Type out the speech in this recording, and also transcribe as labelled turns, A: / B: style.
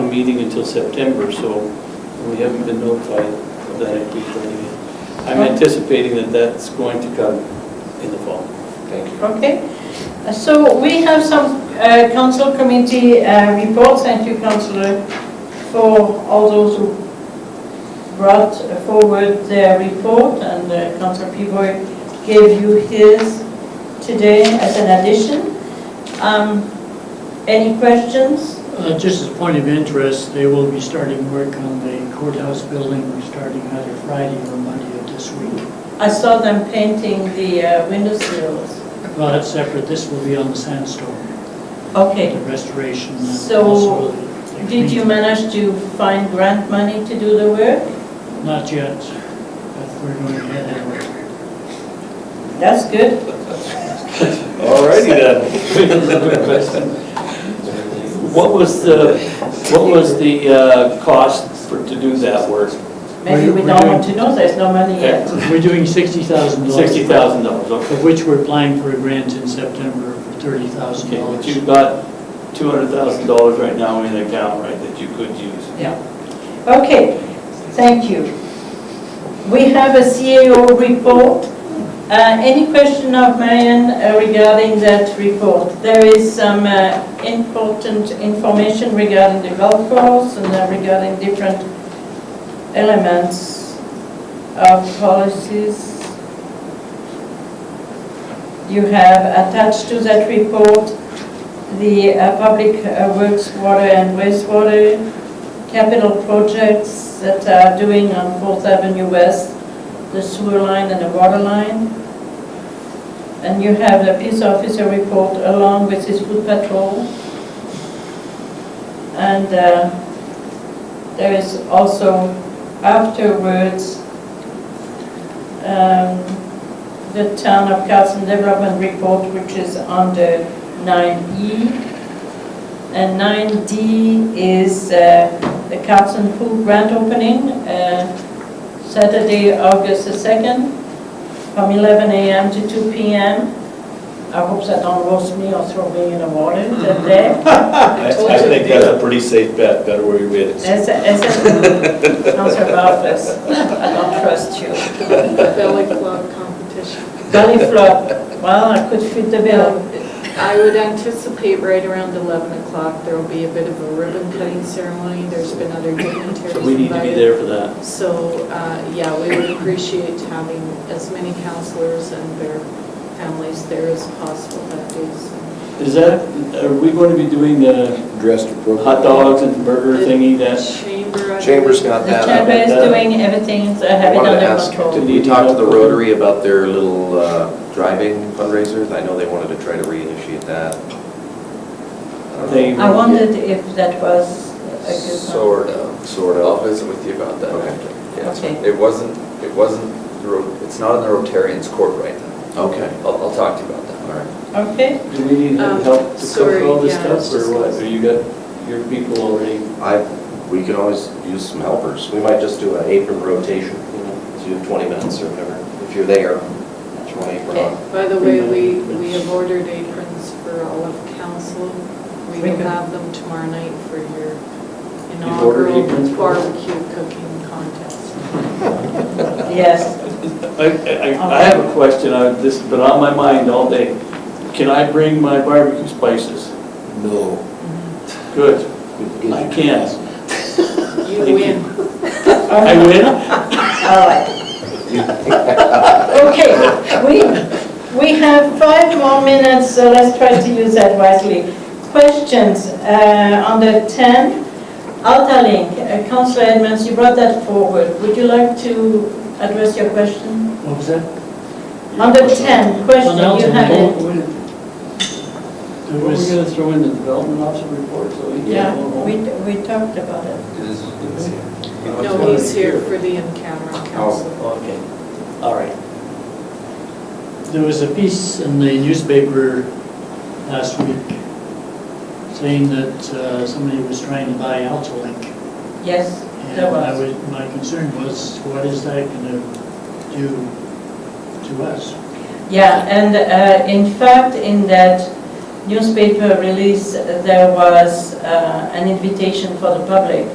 A: meeting until September, so we haven't been notified of that April 30th. I'm anticipating that that's going to come in the fall.
B: Thank you.
C: Okay, so we have some uh, council committee uh, reports, thank you councillor for all those who brought forward their report, and uh, councillor Pivoy gave you his today as an addition. Um, Any questions?
D: Uh, Just as a point of interest, they will be starting work on the courthouse building, starting either Friday or Monday of this week.
C: I saw them painting the uh, windowsills.
D: Well, that's separate, this will be on the sandstone, the
C: Okay,
D: restoration. and
C: So,
D: also the-
C: did you manage to find grant money to do the work?
D: Not yet, but we're going ahead anyway.
C: That's good.
B: All righty then.
A: What was the, what was the uh, cost for, to do that work?
C: Maybe we
D: We're-
C: don't
D: we're
C: want to know, there's no money yet.
D: We're doing $60,000.
A: $60,000, okay.
D: Of which we're applying for a grant in September for
A: Okay, but
D: $30,000.
A: you've got $200,000 right now in the account, right, that you could use.
D: Yeah.
C: Okay, thank you. We have a CAO report. Uh, Any question of Marion uh, regarding that report? There is some uh, important information regarding the golf course and uh, regarding different elements of policies. You have attached to that report the uh, public uh, works, water and wastewater, capital projects that are doing on Fourth Avenue West, the sewer line and the water line. And you have the peace officer report along with his food patrol. And uh, there is also afterwards, um, the town of Carson development report, which is under nine E. And nine D is uh, the Carlson Pool grand opening, uh, Saturday, August the 2nd, from 11 a.m. to 2 p.m. I hope that don't roast me or throw me in the water
B: Mm-hmm.
C: that day.
B: I I think that's a pretty safe bet, better where your head is.
C: That's a, that's a, Counselor Barfus, I don't trust you.
E: Belly club competition.
C: Belly flop, well, I could fit the bill.
E: I would anticipate right around 11 o'clock, there will be a bit of a ribbon cutting ceremony. There's been other dignitaries
A: So
E: invited.
A: we need to be there for that.
E: So, uh, yeah, we would appreciate having as many counselors and their families there as possible that day. so.
A: Is that, are we going to be doing the
F: Dressed appropriately.
A: hot dogs and burger thingy that?
E: Chamber. I
B: Chamber's
E: believe.
B: got
C: The
B: that.
C: chamber is doing everything, so I have
B: I
C: it
B: wanted to
C: under
B: ask,
C: control.
B: did we talk to the Rotary about their little uh, driving fundraisers? I know they wanted to try to reinitiate that.
A: They-
C: I wondered if that was a good one.
G: Sort of.
B: Um, Sort of.
G: I'll visit with you about that
B: Okay.
G: after. Yeah, so
C: Okay.
G: It wasn't, it wasn't, the Ro- it's not in the Rotarians' court right now.
B: Okay,
G: I'll, I'll talk to you about
B: all
G: that.
B: right.
C: Okay,
A: Do we need
E: Um,
A: help to cover
E: sorry,
A: all this
E: yeah, I was
A: stuff or
E: just
A: what?
E: gonna-
A: Or you got your people already?
B: I, we could always use some helpers. We might just do an apron rotation, you know, do 20 minutes or whatever. If you're there, throw an apron on.
E: By the way, we, we have ordered aprons for all of council. We will
C: Okay.
E: have them tomorrow night for your
A: You've ordered
E: inaugural
A: aprons for us?
E: barbecue cooking contest.
C: yes.
A: I, I, I have a question, I, this has been on my mind all day. Can I bring my barbecue spices?
F: No.
A: Good, I can.
E: You
A: Thank you.
E: win.
A: I win?
C: All right. Okay, we, we have five more minutes, so let's try to use that wisely. Questions uh, on the 10, Outerlink, Uh, Councillor Edmonds, you brought that forward. Would you like to address your question?
D: What was that?
C: On the 10, question,
D: Well,
C: you
D: Nelson,
C: have
D: what-
C: it.
D: what- There
A: We're
D: was,
A: gonna throw in the development officer report, so we
C: Yeah,
A: can.
C: we, we talked about it.
E: No, he's here for the in-camera council.
A: Okay, all right.
D: there was a piece in the newspaper last week saying that uh, somebody was trying to buy Altolink.
C: Yes,
D: And
C: there
D: I
C: was.
D: was, my concern was, what is that going to do to us?
C: Yeah, and uh, in fact, in that newspaper release, there was uh, an invitation for the public